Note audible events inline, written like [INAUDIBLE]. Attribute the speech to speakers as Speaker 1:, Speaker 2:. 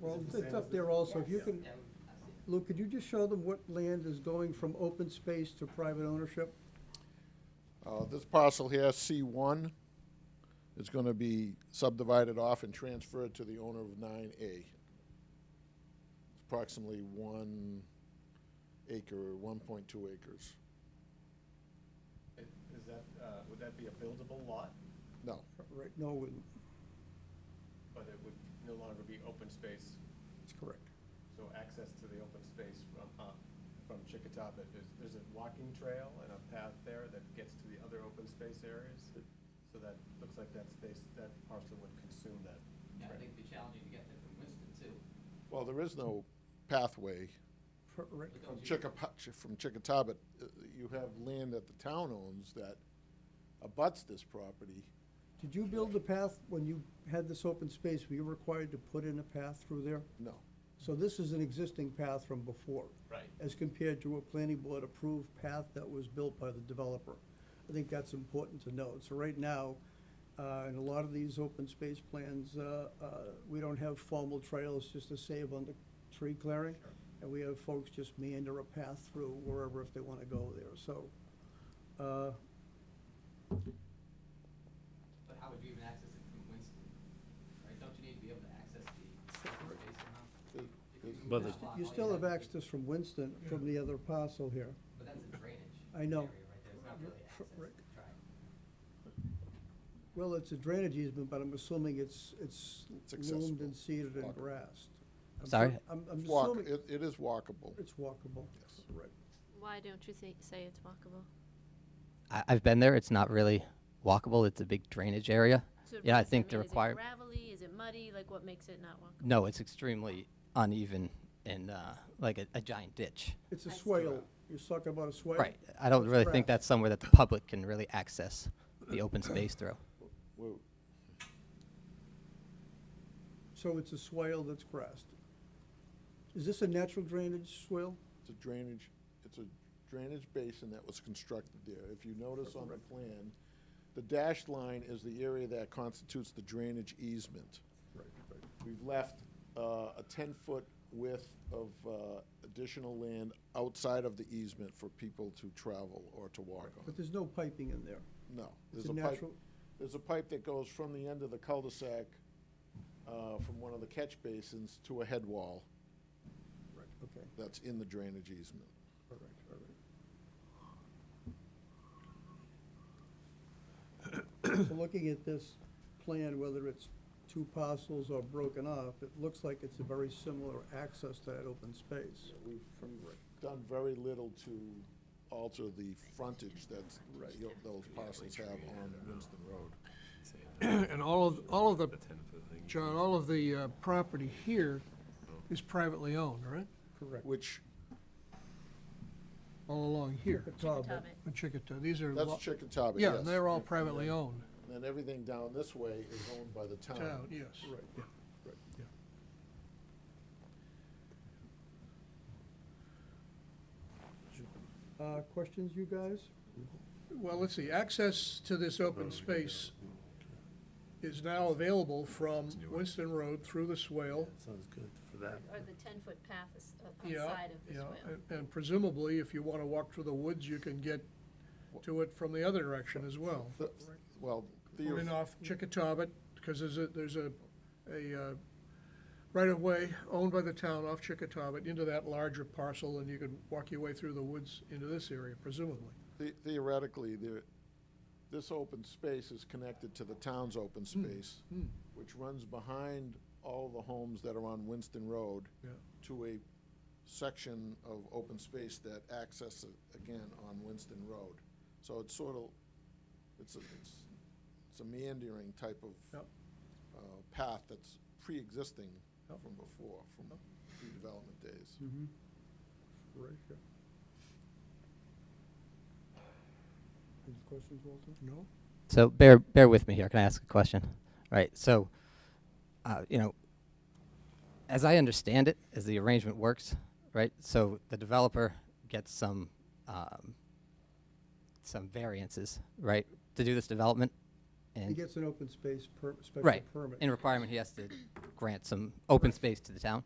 Speaker 1: Well,
Speaker 2: Is it the
Speaker 1: it's
Speaker 2: same
Speaker 1: up
Speaker 2: as
Speaker 1: there
Speaker 2: the-
Speaker 1: also, if you
Speaker 2: Yeah.
Speaker 1: can, Lou, could you just show them what land is going from open space to private ownership?
Speaker 3: Uh, This parcel here, C1, is going to be subdivided off and transferred to the owner of 9A. Approximately one acre, 1.2 acres.
Speaker 2: It- Is that, uh, would that be a buildable lot,
Speaker 3: No,
Speaker 1: Right, no, it wouldn't.
Speaker 2: but it would no longer be open space?
Speaker 1: that's correct.
Speaker 2: So access to the open space from, uh, from Chickatobit, there's, there's a walking trail and a path there that gets to the other open space areas? So that, looks like that space, that parcel would consume that.
Speaker 4: Yeah, I
Speaker 2: trail.
Speaker 4: think it'd be challenging to get there from Winston too.
Speaker 3: well, there is no pathway
Speaker 1: Correct.
Speaker 4: But
Speaker 3: from
Speaker 4: those are-
Speaker 3: Chickapa- from Chickatobit. Uh, You have land that the town owns that abuts this property.
Speaker 1: Did you build the path when you had this open space? Were you required to put in a path through there?
Speaker 3: No.
Speaker 1: So this is an existing path from before,
Speaker 2: Right.
Speaker 1: as compared to a planning board approved path that was built by the developer. I think that's important to note. So right now, uh, in a lot of these open space plans, uh, uh, we don't have formal trails just to save on the tree clearing. And we have folks just meander a path through wherever if they want to go there, so. uh,
Speaker 4: But how would you even access it from Winston? Right, don't you need to be able to access the open space somehow?
Speaker 3: There-
Speaker 4: If you
Speaker 3: there's-
Speaker 4: move
Speaker 5: But
Speaker 4: that
Speaker 5: the-
Speaker 4: lot,
Speaker 1: You
Speaker 4: all
Speaker 1: still have
Speaker 4: to do-
Speaker 1: access from Winston, from the other parcel here.
Speaker 4: But that's a drainage.
Speaker 1: I know.
Speaker 4: Area right there, it's not really access to
Speaker 1: Rick.
Speaker 4: the track.
Speaker 1: Well, it's a drainage easement, but I'm assuming it's, it's
Speaker 3: It's
Speaker 1: loomed
Speaker 3: accessible.
Speaker 1: and seeded and
Speaker 3: Walkable.
Speaker 1: grassed. I'm su-
Speaker 5: Sorry?
Speaker 1: I'm, I'm
Speaker 3: It's walk-
Speaker 1: assuming
Speaker 3: It it is walkable.
Speaker 1: it's walkable.
Speaker 3: Yes.
Speaker 1: Right.
Speaker 6: Why don't you thi- say it's walkable?
Speaker 5: I, I've been there. It's not really walkable. It's a big drainage area.
Speaker 6: So
Speaker 5: Yeah, I
Speaker 6: is it-
Speaker 5: think the
Speaker 6: mean,
Speaker 5: require-
Speaker 6: Is it gravelly, is it muddy, like what makes it not walkable?
Speaker 5: No, it's extremely uneven and uh, like a, a giant ditch.
Speaker 1: It's a
Speaker 6: I see.
Speaker 1: swale. You're talking about a swale?
Speaker 5: Right. I don't
Speaker 1: It's
Speaker 5: really
Speaker 1: grass.
Speaker 5: think that's somewhere that the public can really access the open space through.
Speaker 3: Whoa.
Speaker 1: So it's a swale that's grassed. Is this a natural drainage swale?
Speaker 3: It's a drainage, it's a drainage basin that was constructed there. If you notice on the plan, the dashed line is the area that constitutes the drainage easement. We've left uh, a 10-foot width of uh, additional land outside of the easement for people to travel or to walk on.
Speaker 1: But there's no piping in there.
Speaker 3: No.
Speaker 1: It's
Speaker 3: There's
Speaker 1: a
Speaker 3: a pipe,
Speaker 1: natural-
Speaker 3: there's a pipe that goes from the end of the cul-de-sac uh, from one of the catch basins to a head wall
Speaker 1: Right. Okay,
Speaker 3: that's in the drainage easement.
Speaker 1: all right, all right. So looking at this plan, whether it's two parcels or broken off, it looks like it's a very similar access to that open space.
Speaker 3: We've done very little to alter the frontage that those parcels have on Winston Road.
Speaker 7: [CLEARS THROAT] And all of, all of the, John, all of the uh, property here is privately owned, right?
Speaker 1: Correct.
Speaker 3: Which,
Speaker 7: All along here,
Speaker 1: Chickatobit.
Speaker 6: Chickatobit.
Speaker 7: in Chickato. These are,
Speaker 3: that's
Speaker 7: lo-
Speaker 3: Chickatobit, yes.
Speaker 7: yeah, they're all privately owned,
Speaker 3: And then everything down this way is owned by the
Speaker 7: town,
Speaker 3: town.
Speaker 7: yes.
Speaker 1: Right.
Speaker 7: yeah.
Speaker 1: Uh, questions, you guys?
Speaker 7: Well, let's see, access to this open space is now available from Winston Road through the swale.
Speaker 8: Sounds good for that.
Speaker 6: Or the ten-foot path is o-
Speaker 7: Uh, Yeah,
Speaker 6: outside of the
Speaker 7: yeah,
Speaker 6: swale?
Speaker 7: and- and presumably, if you want to walk through the woods, you can get to it from the other direction as well.
Speaker 3: The- Well, theo-
Speaker 7: Coming off Chickatobit, because there's a, there's a, a uh, right-of-way owned by the town off Chickatobit into that larger parcel, and you could walk your way through the woods into this area presumably.
Speaker 3: the- theoretically, there, this open space is connected to the town's open
Speaker 7: Hmm.
Speaker 3: space, which runs behind all the homes that are on Winston Road
Speaker 7: Yeah.
Speaker 3: to a section of open space that accesses again on Winston Road. So it's sort of, it's a, it's, it's a meandering type of
Speaker 7: Yep.
Speaker 3: uh, path that's pre-existing
Speaker 7: Yep.
Speaker 3: from before, from pre-development days.
Speaker 1: Mm-hmm. Right, yeah. Any questions, Walter?
Speaker 7: No?
Speaker 5: So bear bear with me here. Can I ask a question? Right. So, uh, you know, as I understand it, as the arrangement works, right? So the developer gets some um, some variances, right, to do this development,
Speaker 1: He
Speaker 5: and
Speaker 1: gets an open space per, special
Speaker 5: right,
Speaker 1: permit.
Speaker 5: in requirement, he has to grant some open space to the town.